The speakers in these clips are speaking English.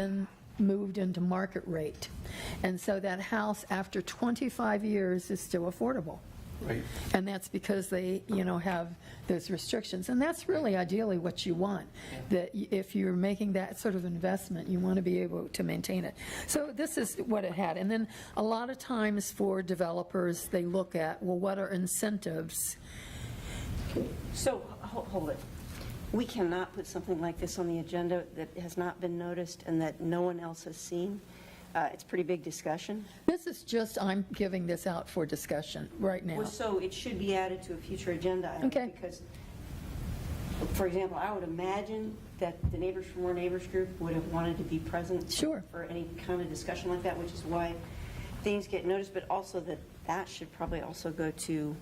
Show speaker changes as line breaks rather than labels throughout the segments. been moved into market rate. And so that house, after 25 years, is still affordable.
Right.
And that's because they, you know, have those restrictions. And that's really ideally what you want, that y- if you're making that sort of investment, you want to be able to maintain it. So this is what it had. And then a lot of times for developers, they look at, well, what are incentives?
So, ho- hold it. We cannot put something like this on the agenda that has not been noticed and that no one else has seen. Uh, It's pretty big discussion.
This is just, I'm giving this out for discussion right now.
Well, So it should be added to a future agenda item.
Okay.
Because, for example, I would imagine that the Neighbors for More Neighbors group would have wanted to be present.
Sure.
For any kind of discussion like that, which is why things get noticed, but also that that should probably also go to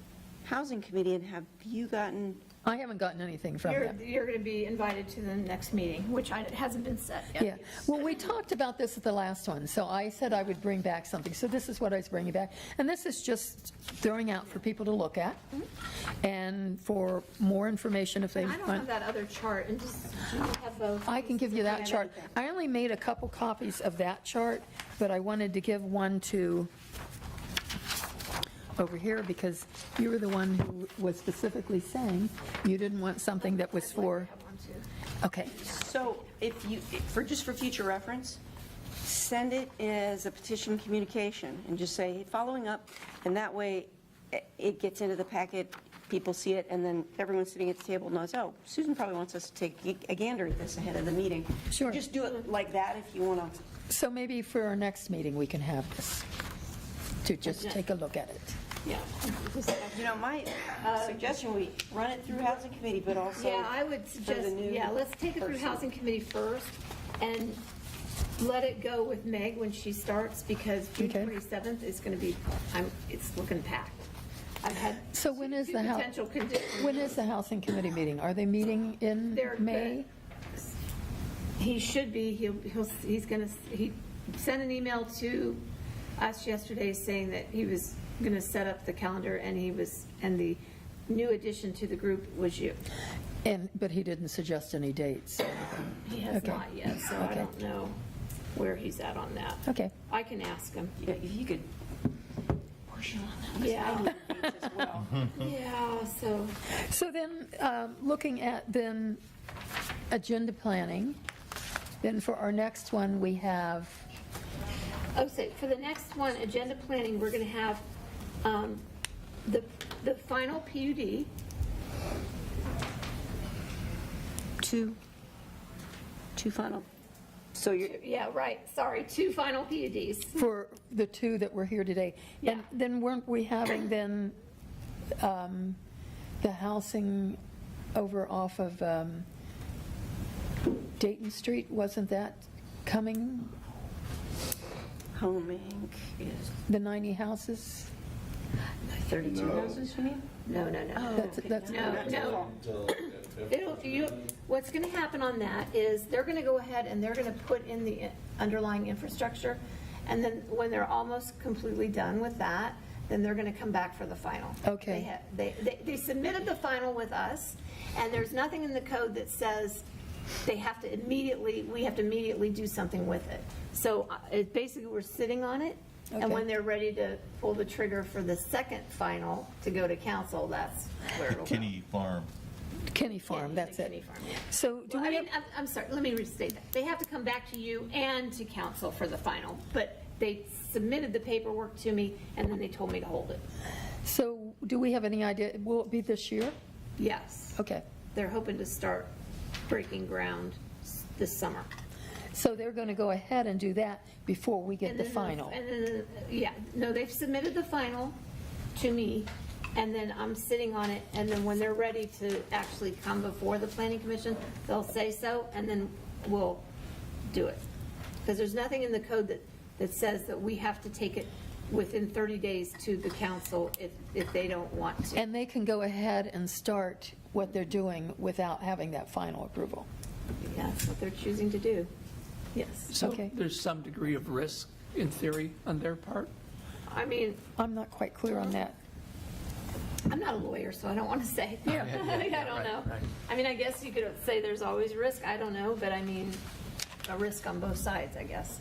Housing Committee. And have you gotten
I haven't gotten anything from
You're,
them.
you're going to be invited to the next meeting, which I- it hasn't been set yet.
Yeah, well, we talked about this at the last one, so I said I would bring back something, so this is what I was bringing back. And this is just throwing out for people to look at, and for more information if they
I don't have
want.
that other chart, and just, do you have those?
I can give you that chart. I only made a couple copies of that chart, but I wanted to give one to over here, because you were the one who was specifically saying you didn't want something that was for,
That one, too.
okay.
So if you, for, just for future reference, send it as a petition communication and just say, following up, and that way i- it gets into the packet, people see it, and then everyone sitting at the table knows, oh, Susan probably wants us to take a- a gander at this ahead of the meeting.
Sure.
Just do it like that if you want to.
So maybe for our next meeting, we can have this, to just take a look at it.
Yeah. You know, my uh, suggestion, we run it through housing committee, but also.
Um, Yeah, I would
for the
suggest,
new
yeah, let's take it through
person.
Housing Committee first, and let it go with Meg when she starts, because June
Okay.
27th is going to be, I'm, it's looking packed. I've had.
So when is
two
the hou-
Potential conditions.
When is the housing committee meeting? Are they meeting in
They're good.
May?
He should be, he'll, he'll, he's gonna, he sent an email to us yesterday saying that he was gonna set up the calendar and he was, and the new addition to the group was you.
And, but he didn't suggest any dates.
He has
Okay.
not yet, so I
Okay.
don't know where he's at on that.
Okay.
I can ask him.
Yeah, If you could push it on that, 'cause I
Yeah.
need the dates as well.
Yeah, so,
So then, um, looking at then agenda planning, then for our next one, we have,
oh, so for the next one, agenda planning, we're gonna have, um, the, the final PUD,
Two, two final. So you're,
yeah, right, sorry, two final PUDs.
for the two that were here today. And
Yeah.
then weren't we having then um, the housing over off of um, Dayton Street? Wasn't that coming,
home inc. is
the 90 houses?
32 houses, you mean?
No, no, no.
That's, that's,
Oh, No, no. It'll, you, what's gonna happen on that is they're gonna go ahead and they're gonna put in the underlying infrastructure. And then when they're almost completely done with that, then they're gonna come back for the final.
Okay.
They ha- They, they, they submitted the final with us and there's nothing in the code that says they have to immediately, we have to immediately do something with it. So uh, it, basically, we're sitting on it and when
Okay.
they're ready to pull the trigger for the second final to go to council, that's where it'll go.
Kenny Farm.
Kenny Farm,
Yeah,
that's
the Kinney
it.
Farm, yeah.
So do
Well, I
we,
mean, I'm, I'm sorry, let me restate that. They have to come back to you and to council for the final, but they submitted the paperwork to me and then they told me to hold it.
so do we have any idea, will it be this year?
Yes,
Okay,
they're hoping to start breaking ground s- this summer.
so they're going to go ahead and do that before we get
And
the
then
final.
And then, yeah, no, they've submitted the final to me and then I'm sitting on it. And then when they're ready to actually come before the planning commission, they'll say so and then we'll do it. Because there's nothing in the code that, that says that we have to take it within 30 days to the council if, if they don't want to.
And they can go ahead and start what they're doing without having that final approval.
That's what they're choosing to do. Yes.
So
Okay.
there's some degree of risk, in theory, on their part?
I mean,
I'm not quite clear on that.
I'm not a lawyer, so I don't want to say. Yeah. I don't know. I mean, I guess you could say there's always risk, I don't know, but I mean, a risk on both sides, I guess.